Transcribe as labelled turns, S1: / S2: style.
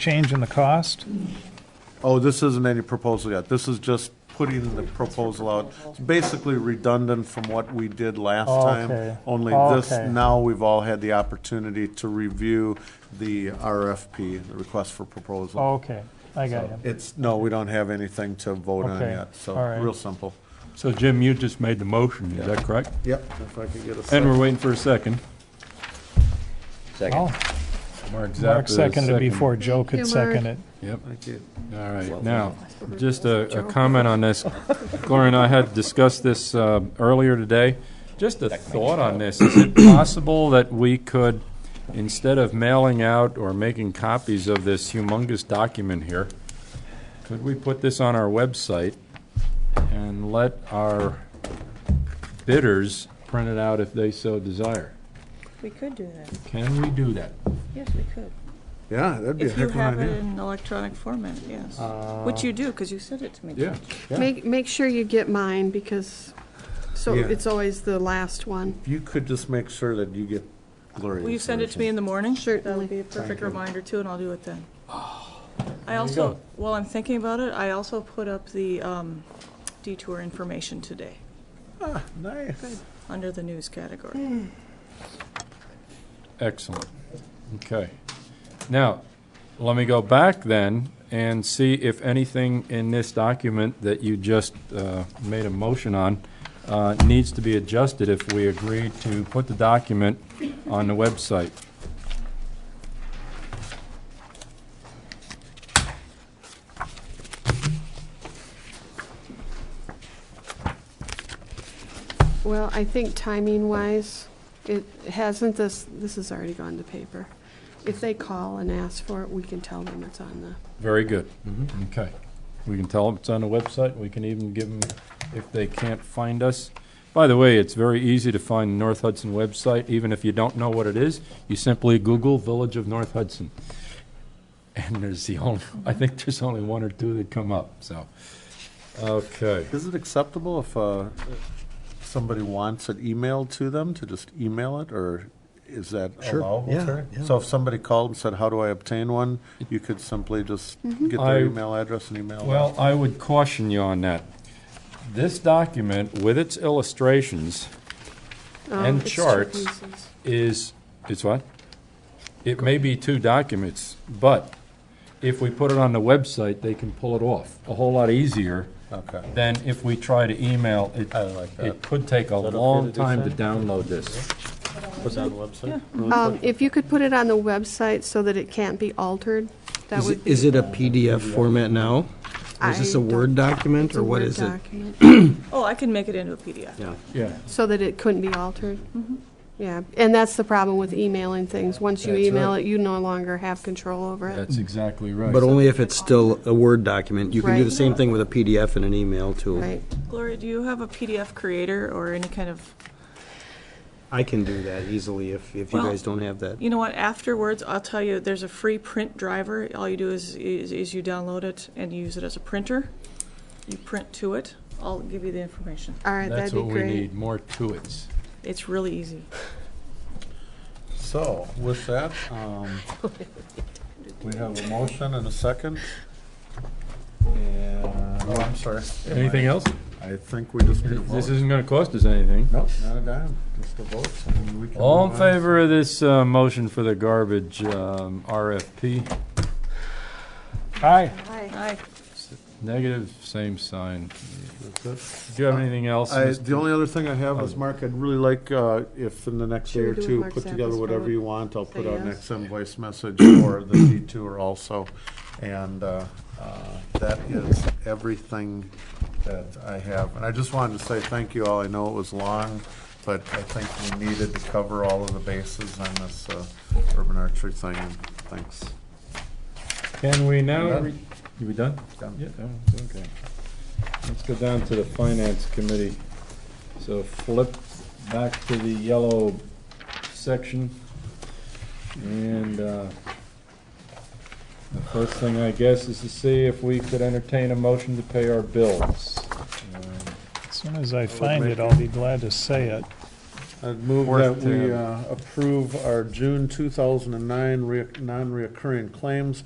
S1: change in the cost?
S2: Oh, this isn't any proposal yet. This is just putting the proposal out. It's basically redundant from what we did last
S1: Okay.
S2: time. Only this,
S1: Okay.
S2: now we've all had the opportunity to review the RFP, the request for proposal.
S1: Oh, Okay, I got you.
S2: It's, no, we don't have anything to vote on
S1: Okay,
S2: yet, so,
S1: all right.
S2: real simple.
S3: So Jim, you just made the motion, is that correct?
S2: Yep, if I could get a
S3: And
S2: second.
S3: we're waiting for a second.
S1: Oh,
S3: Mark
S1: Mark
S3: Zappa is
S1: seconded
S3: second.
S1: before Joe could
S4: Thank you, Mark.
S1: second it.
S3: Yep,
S2: Thank you.
S3: all right. Now, just a, a comment on this. Gloria and I had discussed this, uh, earlier today. Just a thought on this. Is it possible that we could, instead of mailing out or making copies of this humongous document here, could we put this on our website and let our bidders print it out if they so desire?
S4: We could do that.
S3: Can we do that?
S4: Yes, we could.
S2: Yeah, that'd be a
S4: If you
S2: heck of an
S4: have it
S2: idea. Uh,
S4: in electronic format, yes. Which you do, because you sent it to me.
S3: Yeah.
S5: Make, make sure you get mine because, so
S2: Yeah.
S5: it's always the last one.
S2: If you could just make sure that you get Gloria's.
S4: Will you send it to me in the morning? That
S5: Certainly.
S4: would be a perfect reminder too, and I'll do it then.
S2: Oh,
S4: I
S3: you
S4: also,
S3: go.
S4: while I'm thinking about it, I also put up the um, detour information today,
S2: Ah, Nice. Hmm.
S4: under the news category.
S3: Excellent. Okay. Now, let me go back then and see if anything in this document that you just uh, made a motion on uh, needs to be adjusted if we agree to put the document on the website.
S5: Well, I think timing wise, it hasn't this, this has already gone to paper. If they call and ask for it, we can tell them it's on the,
S3: Very good. Okay. We can tell them it's on the website. We can even give them, if they can't find us. By the way, it's very easy to find the North Hudson website, even if you don't know what it is. You simply Google Village of North Hudson. And there's the only, I think there's only one or two that come up, so. Okay.
S2: Is it acceptable if uh, somebody wants it emailed to them, to just email it, or is that allowable?
S6: yeah,
S2: Terry?
S6: yeah.
S2: So if somebody called and said, how do I obtain one, you could simply just get
S3: I-
S2: their email address and email it?
S3: Well, I would caution you on that. This document with its illustrations
S5: um,
S3: And
S5: it's two
S3: charts.
S5: pieces.
S3: is, it's what? It may be two documents, but if we put it on the website, they can pull it off a whole lot easier
S2: Okay.
S3: than if we try to email. It,
S2: I like that.
S3: it could take a
S2: okay to
S3: long
S2: do,
S3: time to
S2: Sam?
S3: download this.
S2: Put that on the website?
S5: Um, if you could put it on the website so that it can't be altered, that
S6: Is it-
S5: would.
S6: Is it a PDF format now? Or is this
S5: I
S6: a
S5: don't-
S6: Word document,
S5: it's a
S6: or what
S5: Word
S6: is it?
S5: document,
S4: Oh, I can make it into a PDF.
S6: Yeah.
S3: Yeah.
S5: So that it couldn't be altered. Yeah, and that's the problem with emailing things. Once you
S3: That's
S5: email
S3: right.
S5: it, you no longer have control over it.
S3: That's exactly right.
S6: But only if it's still a Word document. You can do
S5: Right.
S6: the same thing with a PDF and an email, too.
S5: Right.
S4: Gloria, do you have a PDF creator or any kind of
S6: I can do that easily if, if you
S4: Well,
S6: guys don't have that.
S4: You know what, afterwards, I'll tell you, there's a free print driver. All you do is, is, is you download it and use it as a printer. You print to it. I'll give you the information.
S5: All right,
S3: That's
S5: that'd be
S3: what we
S5: great.
S3: need, more to its.
S4: It's really easy.
S2: So with that, um, we have a motion and a second. And, oh, I'm sorry.
S3: Anything else?
S2: I think we just need a
S3: This
S2: vote.
S3: isn't gonna cost us anything.
S2: Nope, not a dime, just a vote. and we can
S3: All in
S2: move on.
S3: favor of this, uh, motion for the garbage, um, RFP?
S1: Aye.
S4: Aye.
S3: Negative, same sign.
S2: That's it.
S3: Do you
S5: Uh,
S3: have anything else?
S2: I,
S3: Mr.
S2: the only other thing I have is, Mark, I'd really like, uh, if in the next
S5: Should we
S2: day or
S5: do with
S2: two,
S5: Mark
S2: put together
S5: Zappa's
S2: whatever
S5: vote?
S2: you want, I'll put
S5: Say
S2: out an
S5: yes?
S2: ex invoice message for the detour also. And, uh, uh, that is everything that I have. And I just wanted to say thank you all, I know it was long, but I think we needed to cover all of the bases on this, uh, urban archery thing, and thanks.
S3: Can we now,
S2: Done.
S3: re- you we done?
S2: Done.
S3: Yeah, oh, okay. Let's go down to the finance committee. So flip back to the yellow section. And, uh, the first thing, I guess, is to see if we could entertain a motion to pay our bills. Um,
S1: As soon as I find it, I'll be glad to say it.
S2: I'd move that
S3: Worth
S2: we
S3: to-
S2: uh, approve our June 2009 re- non-reoccurring claims